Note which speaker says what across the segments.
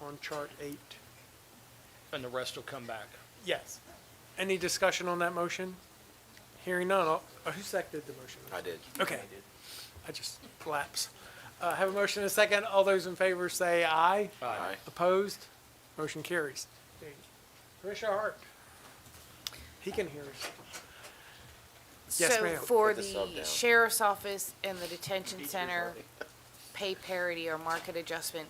Speaker 1: on chart eight.
Speaker 2: and the rest will come back.
Speaker 1: Yes. Any discussion on that motion? Hearing none, I'll- uh, who seconded the motion?
Speaker 3: I did.
Speaker 1: Okay. I just collapsed. Uh, have a motion and a second. All those in favor say aye.
Speaker 3: Aye.
Speaker 1: Opposed? Motion carries. Commissioner Hart. He can hear us. Yes,
Speaker 4: So
Speaker 1: ma'am.
Speaker 4: for
Speaker 3: Put the sub
Speaker 4: the
Speaker 3: down.
Speaker 4: sheriff's office and the detention center pay parity or market adjustment,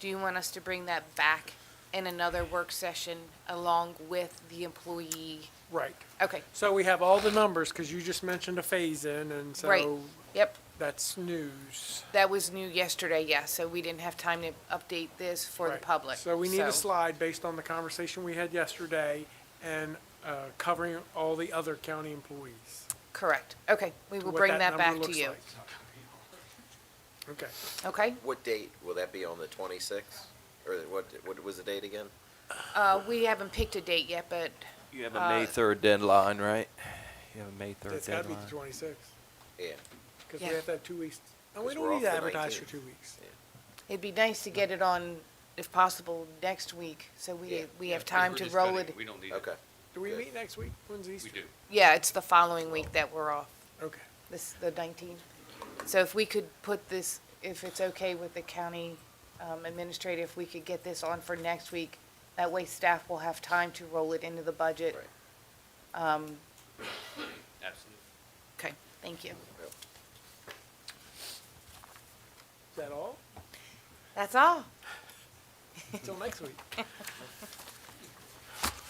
Speaker 4: do you want us to bring that back in another work session along with the employee?
Speaker 1: Right.
Speaker 4: Okay,
Speaker 1: So we have all the numbers, because you just mentioned a phase-in, and
Speaker 4: right,
Speaker 1: so
Speaker 4: yep,
Speaker 1: that's news.
Speaker 4: that was new yesterday, yes, so we didn't have time to update this for the
Speaker 1: Right.
Speaker 4: public.
Speaker 1: So we need a
Speaker 4: so-
Speaker 1: slide based on the conversation we had yesterday and uh, covering all the other county employees.
Speaker 4: Correct, okay, we will
Speaker 1: what
Speaker 4: bring that
Speaker 1: number
Speaker 4: back to
Speaker 1: looks
Speaker 4: you,
Speaker 1: like. Okay.
Speaker 4: okay?
Speaker 3: What date, will that be on the twenty-sixth? Or what, what was the date again?
Speaker 4: Uh, we haven't picked a date yet, but
Speaker 5: You have a May third deadline, right? You have a May third
Speaker 1: It's got to be
Speaker 5: deadline.
Speaker 1: the twenty-sixth,
Speaker 3: Yeah,
Speaker 1: because we
Speaker 4: Yeah.
Speaker 1: have to have two weeks. And we
Speaker 3: 'Cause
Speaker 1: don't
Speaker 3: we're
Speaker 1: need
Speaker 3: off
Speaker 1: to
Speaker 3: the
Speaker 1: advertise for
Speaker 3: 19th.
Speaker 1: two weeks.
Speaker 4: it'd be nice to get it on, if possible, next week, so we,
Speaker 3: Yeah.
Speaker 4: we have time to roll it.
Speaker 6: We don't need it.
Speaker 3: okay.
Speaker 1: Do we
Speaker 3: Good.
Speaker 1: meet next week? When's
Speaker 6: We
Speaker 1: Easter?
Speaker 6: do.
Speaker 4: Yeah, it's the following week that we're off,
Speaker 1: Okay.
Speaker 4: this, the 19th. So if we could put this, if it's okay with the county um, administrator, if we could get this on for next week, that way staff will have time to roll it into the budget.
Speaker 3: Right.
Speaker 6: Absolutely.
Speaker 4: Okay, thank you.
Speaker 3: Yep.
Speaker 1: Is that all?
Speaker 4: That's all.
Speaker 1: Until next week.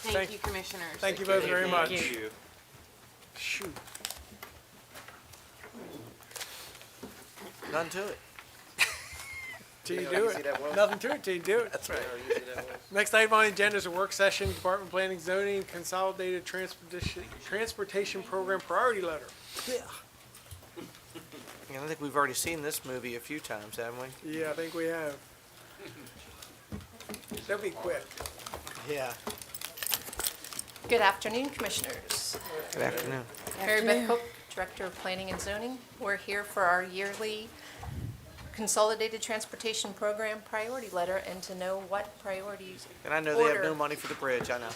Speaker 1: Thank-
Speaker 4: Thank you, commissioners.
Speaker 1: Thank you both very much.
Speaker 4: Thank
Speaker 1: Shoot.
Speaker 3: None to it.
Speaker 1: Till you
Speaker 3: Yeah,
Speaker 1: do
Speaker 3: you see that well?
Speaker 1: it. Nothing to it till you do it.
Speaker 3: That's right.
Speaker 1: Next item on the agenda is a work session, Department of Planning Zoning Consolidated Transportation, Transportation Program Priority Letter.
Speaker 7: Yeah, I think we've already seen this movie a few times, haven't we?
Speaker 1: Yeah, I think we have. That'll be quick.
Speaker 7: Yeah.
Speaker 8: Good afternoon, Commissioners.
Speaker 7: Good afternoon.
Speaker 8: Mary Beth Cook, Director of Planning and Zoning. We're here for our yearly Consolidated Transportation Program Priority Letter and to know what priorities
Speaker 7: And I know they have
Speaker 8: Order.
Speaker 7: no money for the bridge, I know.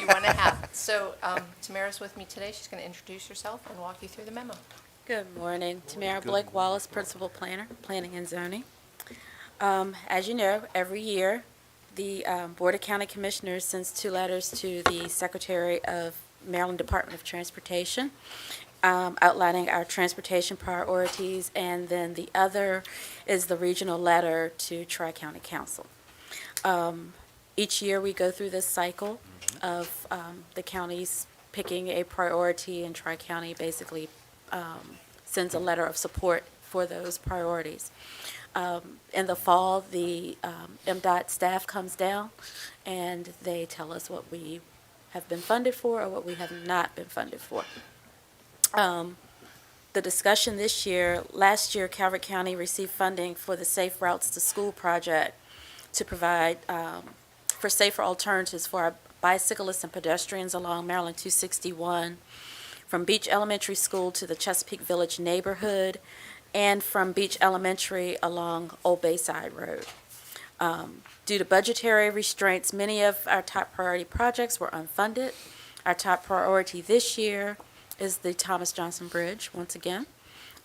Speaker 8: you want to have. So um, Tamara's with me today. She's going to introduce herself and walk you through the memo.
Speaker 9: Good morning, Tamara Blake Wallace, Principal Planner, Planning and Zoning. Um, As you know, every year, the um, Board of County Commissioners sends two letters to the Secretary of Maryland Department of Transportation um, outlining our transportation priorities, and then the other is the regional letter to Tri-County Council. Um, Each year, we go through this cycle of um, the counties picking a priority, and Tri-County basically sends a letter of support for those priorities. Um, In the fall, the um, MDOT staff comes down, and they tell us what we have been funded for or what we have not been funded for. Um, The discussion this year, last year Calvert County received funding for the Safe Routes to School project to provide um, for safer alternatives for our bicyclists and pedestrians along Maryland 261 from Beach Elementary School to the Chesapeake Village neighborhood, and from Beach Elementary along Old Bayside Road. Um, Due to budgetary restraints, many of our top priority projects were unfunded. Our top priority this year is the Thomas Johnson Bridge, once again.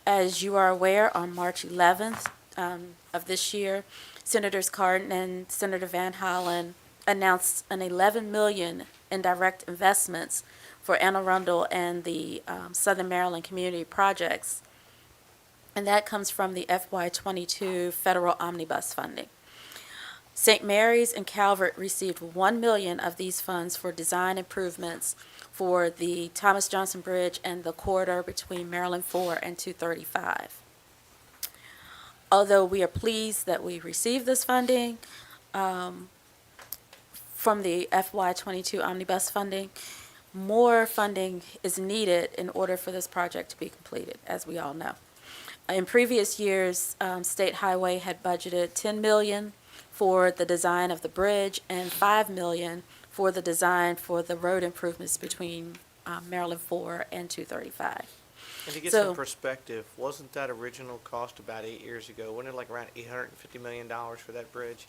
Speaker 9: As you are aware, on March 11th um, of this year, Senators Cardin and Senator Van Hollen announced an 11 million in direct investments for Anne Arundel and the um, Southern Maryland Community Projects. And that comes from the FY22 federal omnibus funding. St. Mary's and Calvert received 1 million of these funds for design improvements for the Thomas Johnson Bridge and the corridor between Maryland 4 and 235. Although we are pleased that we received this funding um, from the FY22 omnibus funding, more funding is needed in order for this project to be completed, as we all know. Uh, In previous years, um, State Highway had budgeted 10 million for the design of the bridge and 5 million for the design for the road improvements between um, Maryland 4 and 235.
Speaker 7: And to get
Speaker 9: So-
Speaker 7: some perspective, wasn't that original cost about eight years ago? Wasn't it like around eight hundred and fifty million dollars for that bridge?